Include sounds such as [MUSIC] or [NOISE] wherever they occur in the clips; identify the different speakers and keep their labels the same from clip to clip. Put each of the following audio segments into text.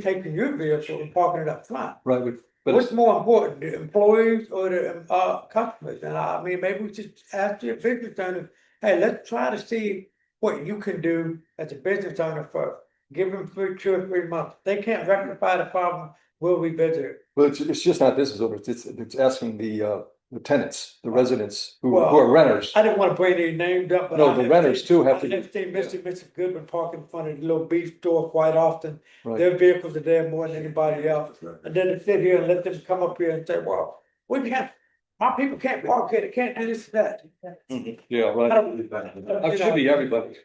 Speaker 1: taking your vehicle and parking it up front.
Speaker 2: Right, but- but
Speaker 1: What's
Speaker 2: it's-
Speaker 1: more important, the employees or the, uh, customers? And I mean, maybe we should ask the business owner, hey, let's try to see what you can do as a business owner first. Give them three, two or three months. If They can't rectify the problem, we'll revisit it.
Speaker 2: well, it's, it's just not business owners, it's, it's asking the, uh, the tenants, the residents who, who
Speaker 1: Well,
Speaker 2: are renters.
Speaker 1: I didn't wanna bring any names up, but.
Speaker 2: No, the renters too have
Speaker 1: I've
Speaker 2: to,
Speaker 1: seen Mr. Mr. Goodman park in front of the little beef store quite often.
Speaker 2: Right.
Speaker 1: Their vehicles are there more than anybody else. And then to sit here and let them come up here and say, well, we can't, my people can't park here, they can't do this and that.
Speaker 2: Mm-hmm. yeah,
Speaker 1: I
Speaker 2: right.
Speaker 1: don't,
Speaker 2: It should be everybody.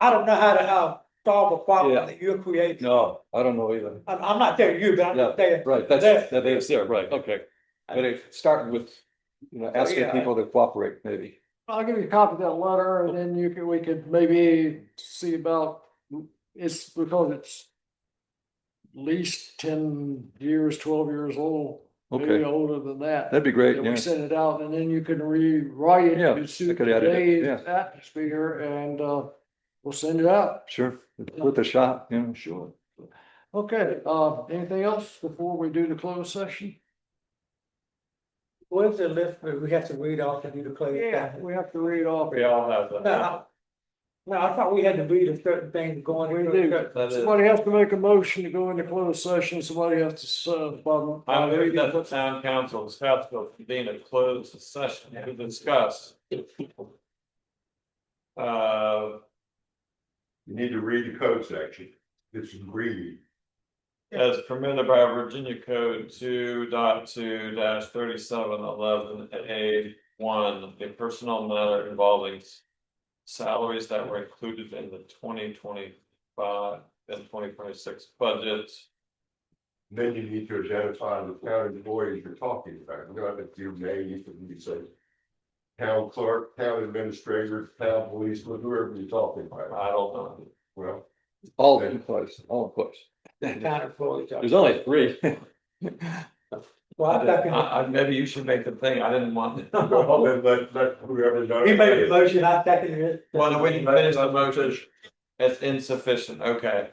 Speaker 1: I don't know how to, uh solve a
Speaker 2: Yeah.
Speaker 1: problem that you're creating.
Speaker 2: No, I don't know either.
Speaker 1: I'm, I'm not telling you, but I'm
Speaker 2: Yeah.
Speaker 1: just saying,
Speaker 2: Right,
Speaker 1: There.
Speaker 2: that's, that is there, right, okay. But it started with, you know, asking
Speaker 1: yeah.
Speaker 2: people to cooperate, maybe.
Speaker 3: I'll give you a copy of that letter and then you could, we could maybe see about, it's because it's. at Least ten years, twelve years old, maybe
Speaker 2: Okay,
Speaker 3: older than that.
Speaker 2: that'd be great,
Speaker 3: that
Speaker 2: yeah.
Speaker 3: We send it out and then you can rewrite it
Speaker 2: Yeah,
Speaker 3: to suit
Speaker 2: could add it,
Speaker 3: today's
Speaker 2: yeah.
Speaker 3: atmosphere and uh, we'll send it out.
Speaker 2: Sure, with a shot, yeah, sure.
Speaker 3: Okay, uh, anything else before we do the closed session?
Speaker 1: where's the list that we have to read off and do the closed
Speaker 3: Yeah,
Speaker 1: session?
Speaker 3: we have to read off.
Speaker 4: all have
Speaker 1: No, I- no, I thought we had to read a certain thing going.
Speaker 3: We
Speaker 1: into a
Speaker 3: do.
Speaker 1: certain-
Speaker 3: Somebody has to make a motion to go into closed session, somebody has to uh, serve.
Speaker 4: I move that the town council of Southfield convene a closed session to discuss. Uh,
Speaker 5: You need to read the code section. It's agreed.
Speaker 4: as permitted by Virginia Code two dot two dash thirty-seven eleven A one, a personal matter involving. Salaries that were included in the twenty twenty-five and twenty twenty-six budgets.
Speaker 5: Then you need to identify the town employees you're talking about. You don't have to do name, you can you say. Town clerk, town administrator, town policeman, whoever you're talking about.
Speaker 4: I don't know.
Speaker 5: Well,
Speaker 2: All in place, all in place.
Speaker 1: Town employees.
Speaker 2: There's only three. [LAUGHS]
Speaker 1: Well, I second it.
Speaker 4: I, I, maybe you should make the thing. I
Speaker 2: [LAUGHS]
Speaker 4: didn't want.
Speaker 5: well,
Speaker 4: Well,
Speaker 5: then let, let whoever. knows.
Speaker 1: He made the motion, I seconded it.
Speaker 4: we can finish the motion. It's insufficient. Okay.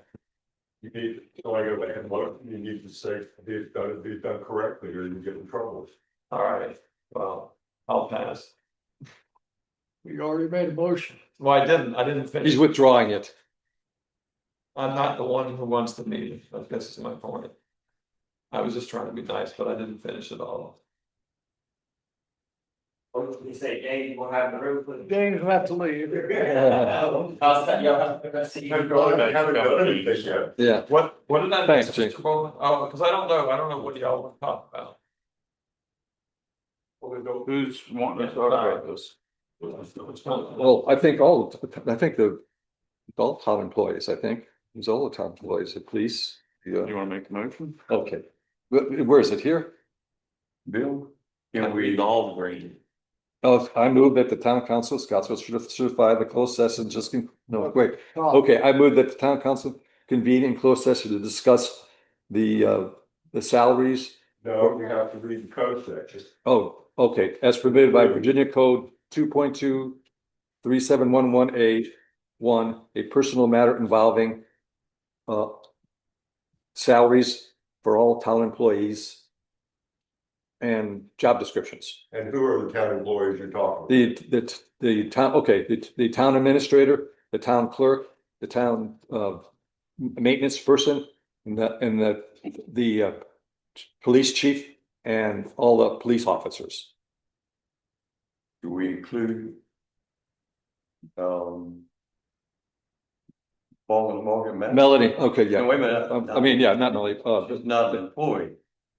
Speaker 5: You need, so I go back and look, you need to say, it's done, it's done correctly or you get in trouble.
Speaker 4: All right. Well, I'll pass.
Speaker 3: We already made a motion.
Speaker 4: Well, I didn't, I didn't
Speaker 2: He's
Speaker 4: finish.
Speaker 2: withdrawing it.
Speaker 4: I'm not the one who wants the meeting. I guess is my point. I was just trying to be nice, but I didn't finish it all.
Speaker 6: What was you say, Dave, we'll have the room for the.
Speaker 3: Dame's about to leave.
Speaker 4: Oh,
Speaker 6: I'll set you up. I'll see you.
Speaker 5: Haven't done anything yet.
Speaker 2: Yeah,
Speaker 4: What, what did I?
Speaker 2: Thanks,
Speaker 4: miss,
Speaker 2: Jake.
Speaker 4: Mr. Bowman? Oh, because I don't know. I don't know what y'all want to talk about.
Speaker 5: Who's wanting
Speaker 4: to talk about
Speaker 5: this?
Speaker 2: well, I think all, I think the all town employees, I think, there's all the town employees, the police. Yeah,
Speaker 5: wanna make the motion?
Speaker 2: uh, okay. Where- Where is it here?
Speaker 5: Bill?
Speaker 6: Can we all agree?
Speaker 2: Oh, I move that the town council of Scottsville should certify the closed session just, con- no, wait. Okay, I move that the town council convene in closed session to discuss the, uh, the salaries.
Speaker 5: No, you have to read the code section.
Speaker 2: Oh, okay, as permitted by Virginia Code two point two three seven one one A one, a personal matter involving uh, salaries for all town employees and job descriptions.
Speaker 5: And who are the town employees you're talking?
Speaker 2: The, the, the town, okay, the, the town administrator, the town clerk, the town, uh, maintenance person, and the, and the, the, uh, police chief and all the police officers.
Speaker 5: Do we include? Um. Paul and Morgan. Matt?
Speaker 2: Melody, okay, yeah.
Speaker 5: No, wait a minute.
Speaker 2: Um, I mean, yeah, not Melody, uh,
Speaker 5: She's not an employee.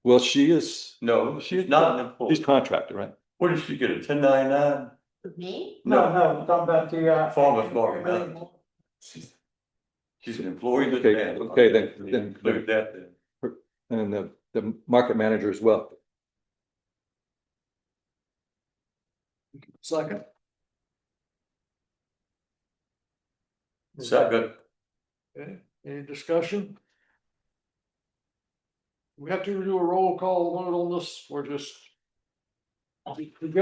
Speaker 2: well, she is,
Speaker 5: No, she's not an
Speaker 2: she's
Speaker 5: employee.
Speaker 2: contracted, right?
Speaker 5: What did she get, a ten ninety-nine?
Speaker 7: Me?
Speaker 1: No, no, I'm talking about the, uh.
Speaker 5: Form of Morgan Matt. She's she's an employee. of the
Speaker 2: Okay,
Speaker 5: town.
Speaker 2: okay, then-
Speaker 5: We
Speaker 2: then-
Speaker 5: Include that then.
Speaker 2: And the, the market manager as well.
Speaker 3: Second,
Speaker 5: Is that good?
Speaker 3: any discussion? We have to do a roll call vote on this, we're just. We go